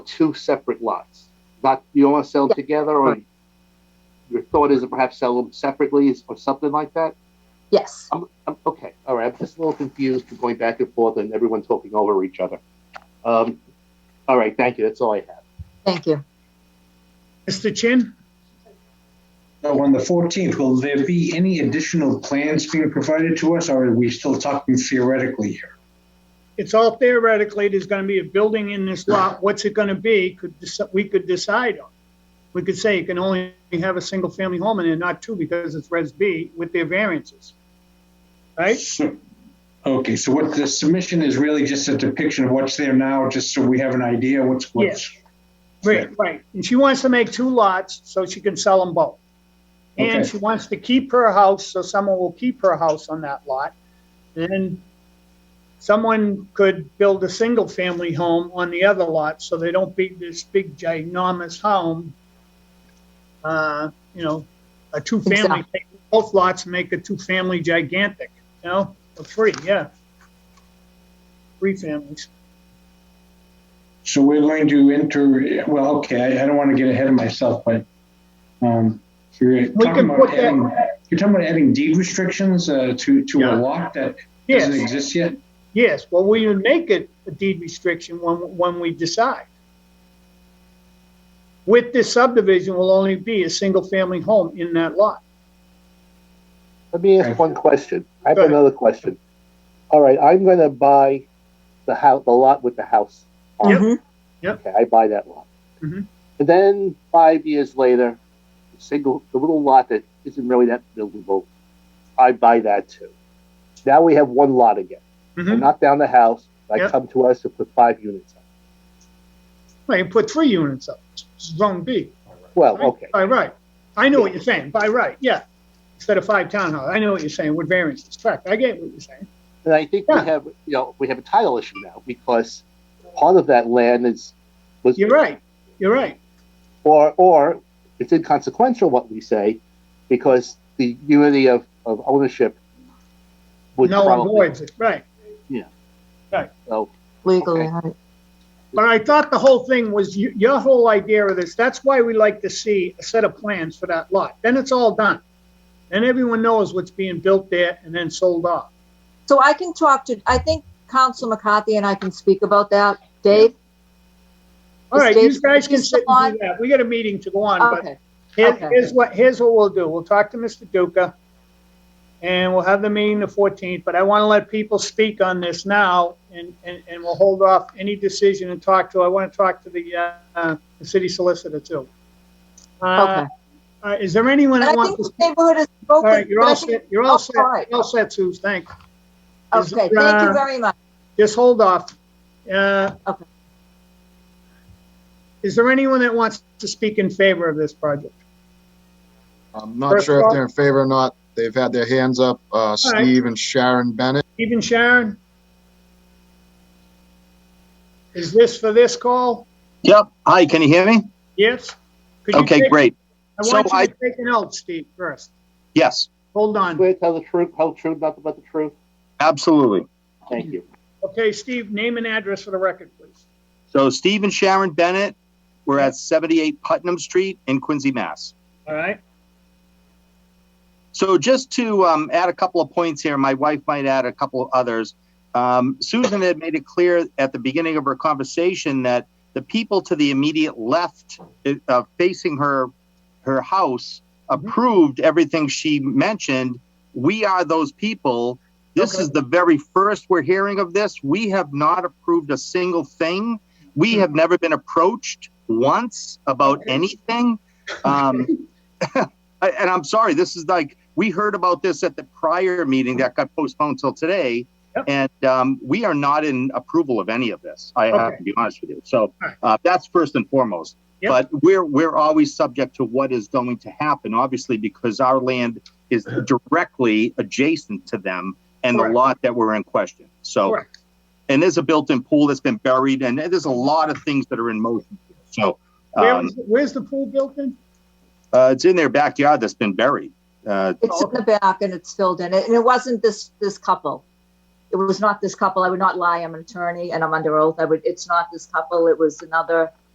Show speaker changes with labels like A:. A: two separate lots. Not, you don't want to sell them together, or
B: Right.
A: your thought is to perhaps sell them separately or something like that?
B: Yes.
A: I'm, I'm, okay, all right, I'm just a little confused from going back and forth and everyone talking over each other. Um, all right, thank you, that's all I have.
B: Thank you.
C: Mr. Chin?
D: So on the 14th, will there be any additional plans being provided to us, or are we still talking theoretically here?
C: It's all theoretically, there's going to be a building in this lot. What's it going to be? Could, deci- we could decide on. We could say you can only have a single-family home in it, not two, because it's Res B with their variances. Right?
D: So- Okay, so what the submission is really just a depiction of what's there now, just so we have an idea what's, what's.
C: Right, right. And she wants to make two lots so she can sell them both. And
D: Okay.
C: she wants to keep her house, so someone will keep her house on that lot. And someone could build a single-family home on the other lot, so they don't be this big ginormous home. Uh, you know, a two-family,
B: Exactly.
C: both lots make a two-family gigantic, you know, or three, yeah. Three families.
D: So we're going to enter, well, okay, I, I don't want to get ahead of myself, but, um, you're
C: can
D: talking
C: put
D: about
C: that-
D: adding, you're talking about adding deed restrictions, uh, to, to
C: Yeah.
D: a lot that
C: Yes.
D: doesn't exist yet?
C: Yes, well, we would make it a deed restriction when, when we decide. With this subdivision will only be a single-family home in that lot.
A: Let me
D: Right.
A: ask one question. I have
C: Go ahead.
A: another question. All right, I'm gonna buy the house, the lot with the house. on it.
C: Yep.
A: Okay, I buy that lot.
C: Mhm.
A: And then five years later, the single, the little lot that isn't really that buildable, I buy that too. Now we have one lot again. I
C: Mhm.
A: knock down the house, I
C: Yep.
A: come to us to put five units up.
C: Right, you put three units up, zone B.
A: Well, Oh, okay,
C: By right. I know what you're saying, by right, yeah. Instead of five townhouses, I know what you're saying, with variances, correct, I get what you're saying.
A: and I think we
C: Yeah.
A: have, you know, we have a title issue now because part of that land is, was.
C: You're right, you're right,
A: or or it's inconsequential what we say because the unity of, of ownership would
C: no one
A: probably
C: voids it, right.
A: so
B: Legally,
A: Okay.
B: right.
C: But I thought the whole thing was, you- your whole idea of this, that's why we like to see a set of plans for that lot. Then it's all done. And everyone knows what's being built there and then sold off.
B: So I can talk to, I think Council McCarthy and I can speak about that. Dave?
C: All right,
B: Is
C: you
B: Dave-
C: guys can
B: is
C: sit and
B: someone-
C: do that. We got a meeting to go on, but
B: Okay,
C: here-
B: okay.
C: here's what, here's what we'll do. We'll talk to Mr. Duca. And we'll have the meeting the fourteenth, but I want to let people speak on this now and, and, and we'll hold off any decision and talk to, I want to talk to the, uh, uh, the city solicitor too. Uh,
B: okay.
C: uh, is there anyone
B: And I
C: that wants
B: think
C: to
B: the neighborhood is
C: All right,
B: broken.
C: you're all set, you're
B: Oh,
C: all set,
B: all right.
C: you're all set, Sue, thanks. Is,
B: Okay, thank
C: uh,
B: you very much.
C: Just hold off. Uh,
B: Okay.
C: Is there anyone that wants to speak in favor of this project?
E: I'm not
C: First
E: sure
C: call.
E: if they're in favor or not. They've had their hands up, uh,
C: right.
E: Steve and Sharon Bennett.
C: Even Sharon? Is this for this call?
F: Yep. Hi, can you hear me?
C: Yes? Could you
F: Okay,
C: take-
F: great.
C: I want
F: So
C: you to take an note, Steve, first.
F: Yes,
C: Hold on.
A: swear to tell the truth, tell the truth, nothing but the truth.
F: absolutely.
A: Thank you.
C: Okay, Steve, name and address for the record, please.
F: So Steve and Sharon Bennett, we're at 78 Putnam Street in Quincy, Mass.
C: All right?
F: So just to um, add a couple of points here, my wife might add a couple of others. Um, Susan had made it clear at the beginning of her conversation that the people to the immediate left uh, facing her her house approved everything she mentioned. We are those people. This
C: Okay.
F: is the very first we're hearing of this. We have not approved a single thing. We have never been approached once about anything. Um, I- and I'm sorry, this is like, we heard about this at the prior meeting that got postponed till today.
C: Yep.
F: And um, we are not in approval of any of this. I have to be honest with you. So
C: Alright.
F: uh, that's first and foremost.
C: Yep.
F: But we're we're always subject to what is going to happen, obviously, because our land is directly adjacent to them and
C: Correct.
F: the lot that we're in question. So
C: Correct.
F: and there's a built-in pool that's been buried, and there's a lot of things that are in motion. here. So
C: Where
F: um,
C: was- Where's the pool built in?
F: uh, it's in their backyard that's been buried. Uh,
B: It's in the back and it's filled in. And it wasn't this, this couple. It was not this couple. I would not lie. I'm an attorney and I'm under oath. I would, it's not this couple. It was another